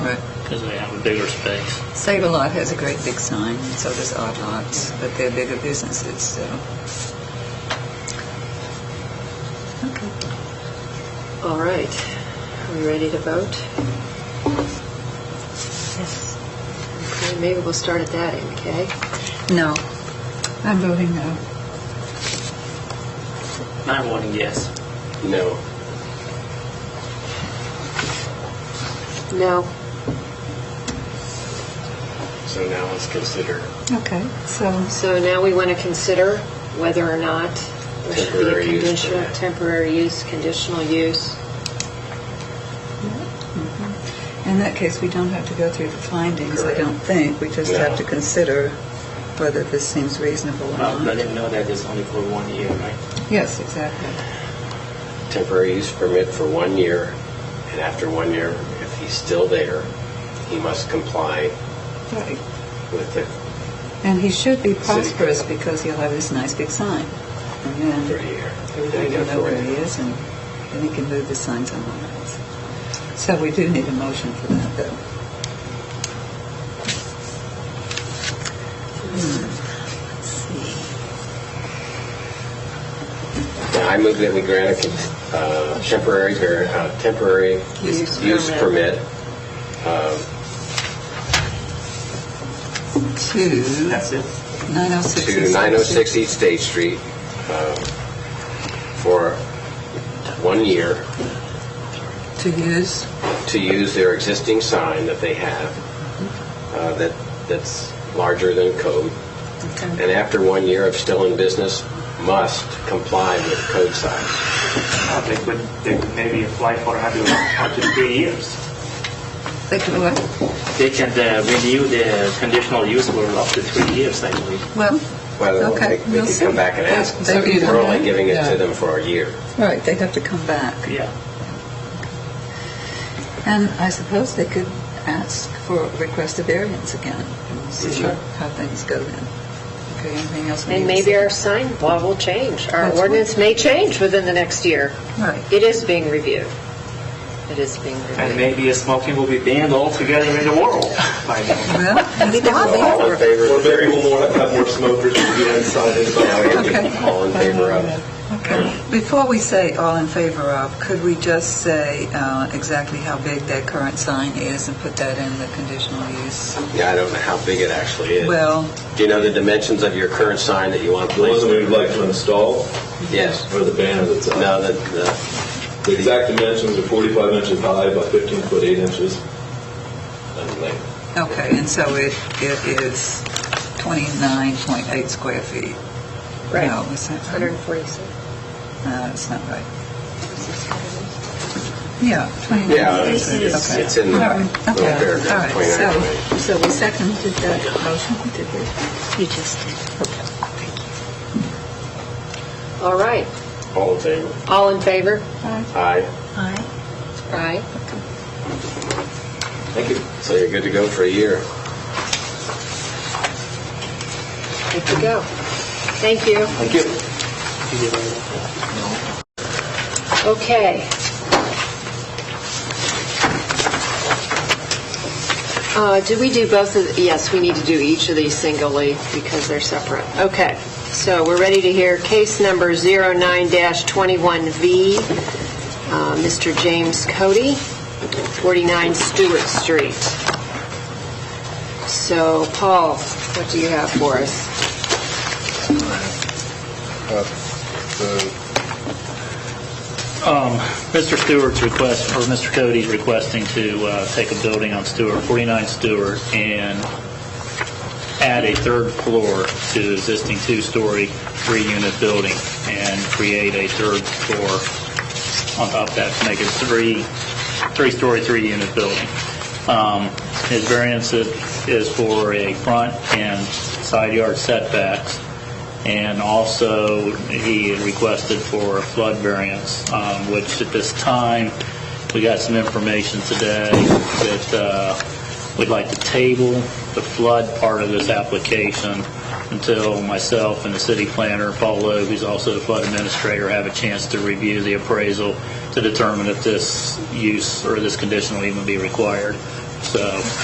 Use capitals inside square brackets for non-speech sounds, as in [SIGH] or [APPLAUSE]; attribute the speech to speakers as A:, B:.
A: because they have a bigger space.
B: Save-A-Lot has a great big sign, and so does Odd Lots, but they're bigger businesses, so. Okay.
C: All right, are we ready to vote?
B: Yes.
C: Okay, Maybe we'll start at that end, okay?
B: No. I'm voting no.
A: I'm voting yes.
D: No.
C: No,
D: So now let's consider
B: Okay, so,
C: so now we want to consider whether or not there should be a
D: Temporary use
C: conditional,
D: permit.
C: temporary use, conditional use.
B: in that case, we don't have to go through the findings, I don't think. We just have to
D: No.
B: consider whether this seems reasonable or
A: Well, let
B: not.
A: them know that it's only for one year, right?
B: Yes, exactly.
D: temporary use permit for one year, and after one year, if he's still there, he must comply
B: Right.
D: with the
B: And he should be
D: City.
B: prosperous because he'll have this nice big sign. And then
D: 30-year.
B: everybody will know where he is and then he can move the sign somewhere else. So we do need a motion for that, though. Hmm, Let's see.
D: Now, I move that we grant a con- uh, temporary, var- uh, temporary
C: Use
D: use
C: permit.
D: permit um,
B: Two.
A: it.
B: 906.
D: to 906 East State Street um, for one year
B: To use.
D: to use their existing sign that they have uh, that that's larger than code.
B: Okay.
D: and after one year of still in business, must comply with code sign.
A: Uh, They could, they could maybe apply for 100, 103 years.
B: They could what?
A: They can uh, renew the conditional use for up to three years, I believe.
B: Well,
D: Well,
B: Okay,
D: they they
B: we'll
D: could
B: see.
D: come back and ask.
B: So either
D: We're only
B: way,
D: giving it
B: yeah.
D: to them for a year.
B: right, they'd have to come back.
A: Yeah.
B: And I suppose they could ask for, request a variance again, and see
D: Sure.
B: how things go then. Okay, anything else? we
C: And
B: need to
C: maybe
B: say?
C: our sign law will change.
B: That's
C: Our
B: right.
C: ordinance may change within the next year.
B: Right.
C: It is being reviewed. It is being reviewed.
A: And maybe smoking will be banned altogether in the world by then.
B: Well,
C: [LAUGHS] Maybe there will be
D: All in favor?
E: Or maybe we'll want to have more smokers to get inside and vote.
B: okay.
D: All in favor of?
B: Okay. Before we say all in favor of, could we just say uh, exactly how big that current sign is and put that in the conditional use?
D: Yeah, I don't know how big it actually is.
B: Well,
D: Do you know the dimensions of your current sign that you want to
E: The one
D: place?
E: that we'd like to install,
D: Yes.
E: or the banner that's on.
D: No, the, the,
E: The exact dimensions are 45 inches high by 15 foot 8 inches. And like,
B: okay, and so it, it is 29.8 square feet.
C: Right.
B: No, is that right?
C: 146.
B: No, it's not right. Yeah, 29.
D: yeah, it's- it's
B: Okay.
D: it's in the
B: All right.
D: little
B: Okay. All
D: paragraph
B: right.
D: 29.
B: So, so we seconded that motion, did we?
C: You just did. All right,
D: All in favor?
C: all in favor?
D: Aye.
C: Aye.
D: Thank you. So you're good to go for a year.
C: Good to go. Thank you.
D: Thank you.
C: Okay. Uh, Did we do both of, yes, we need to do each of these singly because they're separate. Okay, so we're ready to hear case number 09-21V, uh, Mr. James Cody, 49 Stewart Street. So Paul, what do you have for us?
F: Um, Mr. Stewart's request, or Mr. Cody's requesting to uh, take a building on Stewart, 49 Stewart, and add a third floor to the existing two-story, three-unit building, and create a third floor on top of that to make it three, three-story, three-unit building. Um, His variance is is for a front and side yard setbacks. And also, he had requested for a flood variance, um, which at this time, we got some information today that uh, we'd like to table the flood part of this application until myself and the city planner, Paul Loeb, who's also the flood administrator, have a chance to review the appraisal to determine if this use or this condition will even be required. So